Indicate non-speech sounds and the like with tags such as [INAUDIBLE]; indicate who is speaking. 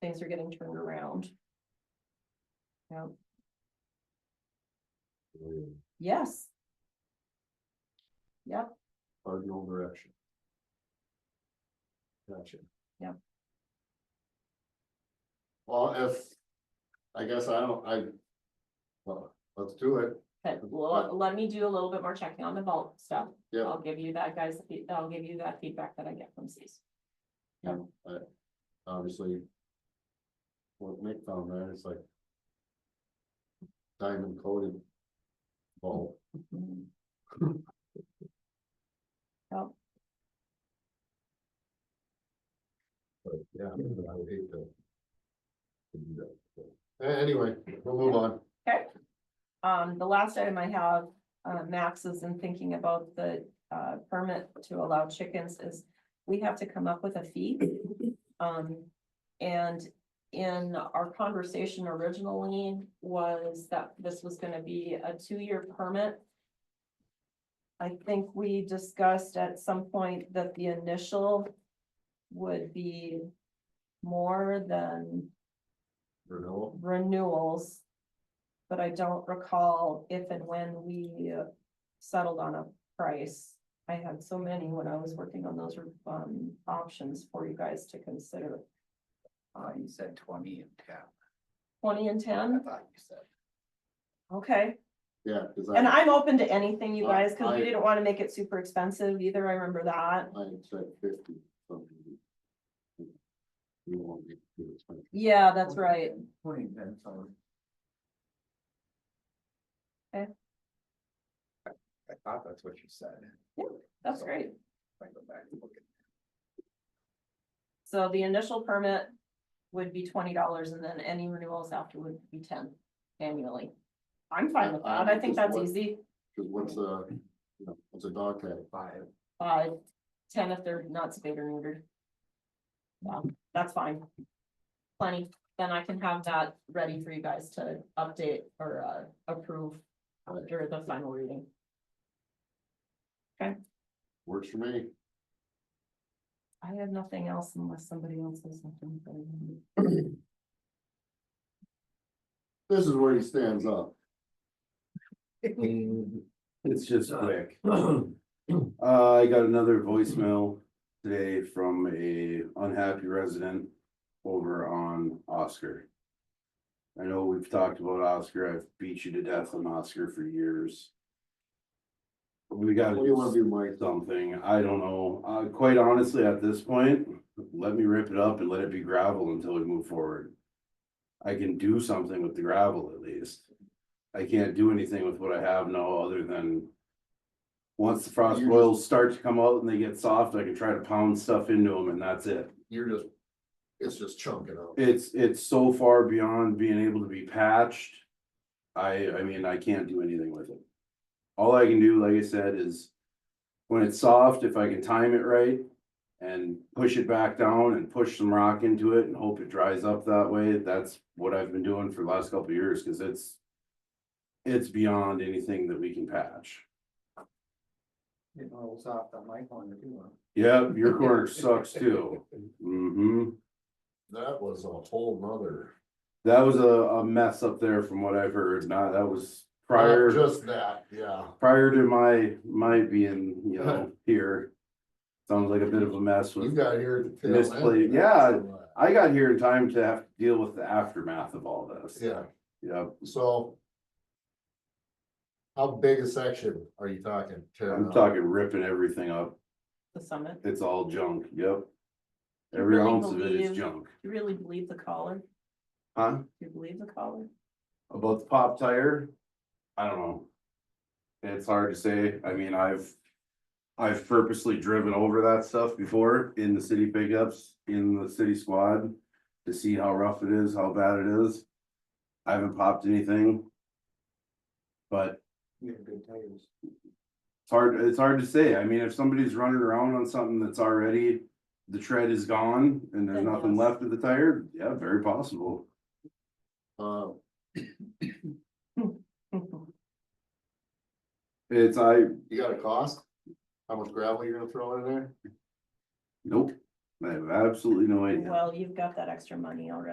Speaker 1: things are getting turned around. Yeah, yes. Yep,
Speaker 2: Cardinal direction. Gotcha.
Speaker 1: Yep.
Speaker 2: Well, if, I guess I don't, I. Well, let's do it.
Speaker 1: but let, let me do a little bit more checking on the vault stuff.
Speaker 2: Yeah.
Speaker 1: I'll give you that guys, fe- I'll give you that feedback that I get from C's. Yeah.
Speaker 2: But obviously. What Nick found there, it's like. Diamond coated. Bulb,
Speaker 1: Mhm.
Speaker 2: but yeah, I would hate to. to do that. but- a- Anyway, we'll move on.
Speaker 1: Um, the last item I have, uh, Max is in thinking about the, uh, permit to allow chickens is we have to come up with a fee. Um, and in our conversation originally was that this was gonna be a two-year permit. I think we discussed at some point that the initial would be more than
Speaker 2: Renewal,
Speaker 1: renewals. But I don't recall if and when we settled on a price. I had so many when I was working on those um options for you guys to consider.
Speaker 3: Uh, you said twenty and ten.
Speaker 1: Twenty and
Speaker 3: I
Speaker 1: ten,
Speaker 3: thought you said.
Speaker 1: okay,
Speaker 2: yeah, cause
Speaker 1: and
Speaker 2: I,
Speaker 1: I'm open to anything, you guys, cause
Speaker 2: I-
Speaker 1: we didn't wanna make it super expensive either, I remember that.
Speaker 2: I said fifty something. You won't get too expensive.
Speaker 1: Yeah, that's right,
Speaker 3: Twenty and ten, sorry.
Speaker 1: Okay.
Speaker 3: I I thought that's what you said.
Speaker 1: that's great.
Speaker 3: If I go back and look at-
Speaker 1: So the initial permit would be twenty dollars and then any renewals after would be ten annually. I'm fine with that, I think that's easy.
Speaker 2: Cause what's a, you know, what's a dog tag?
Speaker 3: Five,
Speaker 1: Uh, ten if they're not spayed or neutered. Yeah, that's fine. Plenty, then I can have that ready for you guys to update or uh approve after the final reading.
Speaker 2: Works for me.
Speaker 1: I have nothing else unless somebody else has something. for me.
Speaker 2: This is where he stands up.
Speaker 4: [LAUGHS] It's just
Speaker 2: [CLEARS THROAT]
Speaker 4: quick. Uh, I got another voicemail today from a unhappy resident over on Oscar. I know we've talked about Oscar. I've beat you to death on Oscar for years. We
Speaker 2: What
Speaker 4: gotta
Speaker 2: do you wanna
Speaker 4: do
Speaker 2: do, Mike?
Speaker 4: something. I don't know. Uh, quite honestly, at this point, let me rip it up and let it be gravel until we move forward. I can do something with the gravel at least. I can't do anything with what I have now other than. Once the frost
Speaker 2: You're
Speaker 4: boils start to come out and they get soft, I can try to pound stuff into them and that's it.
Speaker 2: You're just, it's just chunking out.
Speaker 4: It's, it's so far beyond being able to be patched. I, I mean, I can't do anything with it. All I can do, like I said, is when it's soft, if I can time it right and push it back down and push some rock into it and hope it dries up that way, that's what I've been doing for the last couple of years, cause it's it's beyond anything that we can patch.
Speaker 3: it rolls off the mic on the two one.
Speaker 4: Yep, your corner sucks too. hmm
Speaker 2: That was a whole nother.
Speaker 4: That was a, a mess up there from what I've heard. Nah, that was prior.
Speaker 2: Not Just that, yeah.
Speaker 4: prior to my, my being, you know, here. Sounds like a bit of a mess
Speaker 2: Uh-huh. You
Speaker 4: with,
Speaker 2: got here. at the tail end.
Speaker 4: Misplay- yeah. I got here in time to have to deal with the aftermath of all this.
Speaker 2: Yeah,
Speaker 4: Yep,
Speaker 2: so. How big a section are you talking? tearing
Speaker 4: I'm
Speaker 2: up?
Speaker 4: talking ripping everything up,
Speaker 1: The summit,
Speaker 4: it's all junk, yep. Every
Speaker 1: really
Speaker 4: ounce of it
Speaker 1: believe-
Speaker 4: is junk,
Speaker 1: you really believe the caller?
Speaker 4: huh?
Speaker 1: You believe the [LAUGHS] caller?
Speaker 4: About the pop tire, I don't know. It's hard to say, I mean, I've, I've purposely driven over that stuff before in the city pickups, in the city squad. To see how rough it is, how bad it is. I haven't popped anything. But
Speaker 3: You have good tires.
Speaker 4: it's hard, it's hard to say, I mean, if somebody's running around on something that's already. The tread is gone and there's
Speaker 1: Then
Speaker 4: nothing
Speaker 1: yes.
Speaker 4: left of the tire, yeah, very possible.
Speaker 2: Uh,
Speaker 4: It's, I,
Speaker 2: you got a cost? How much gravel you're gonna throw in there?
Speaker 4: nope, I have absolutely no idea.
Speaker 1: Well, you've got that extra money already.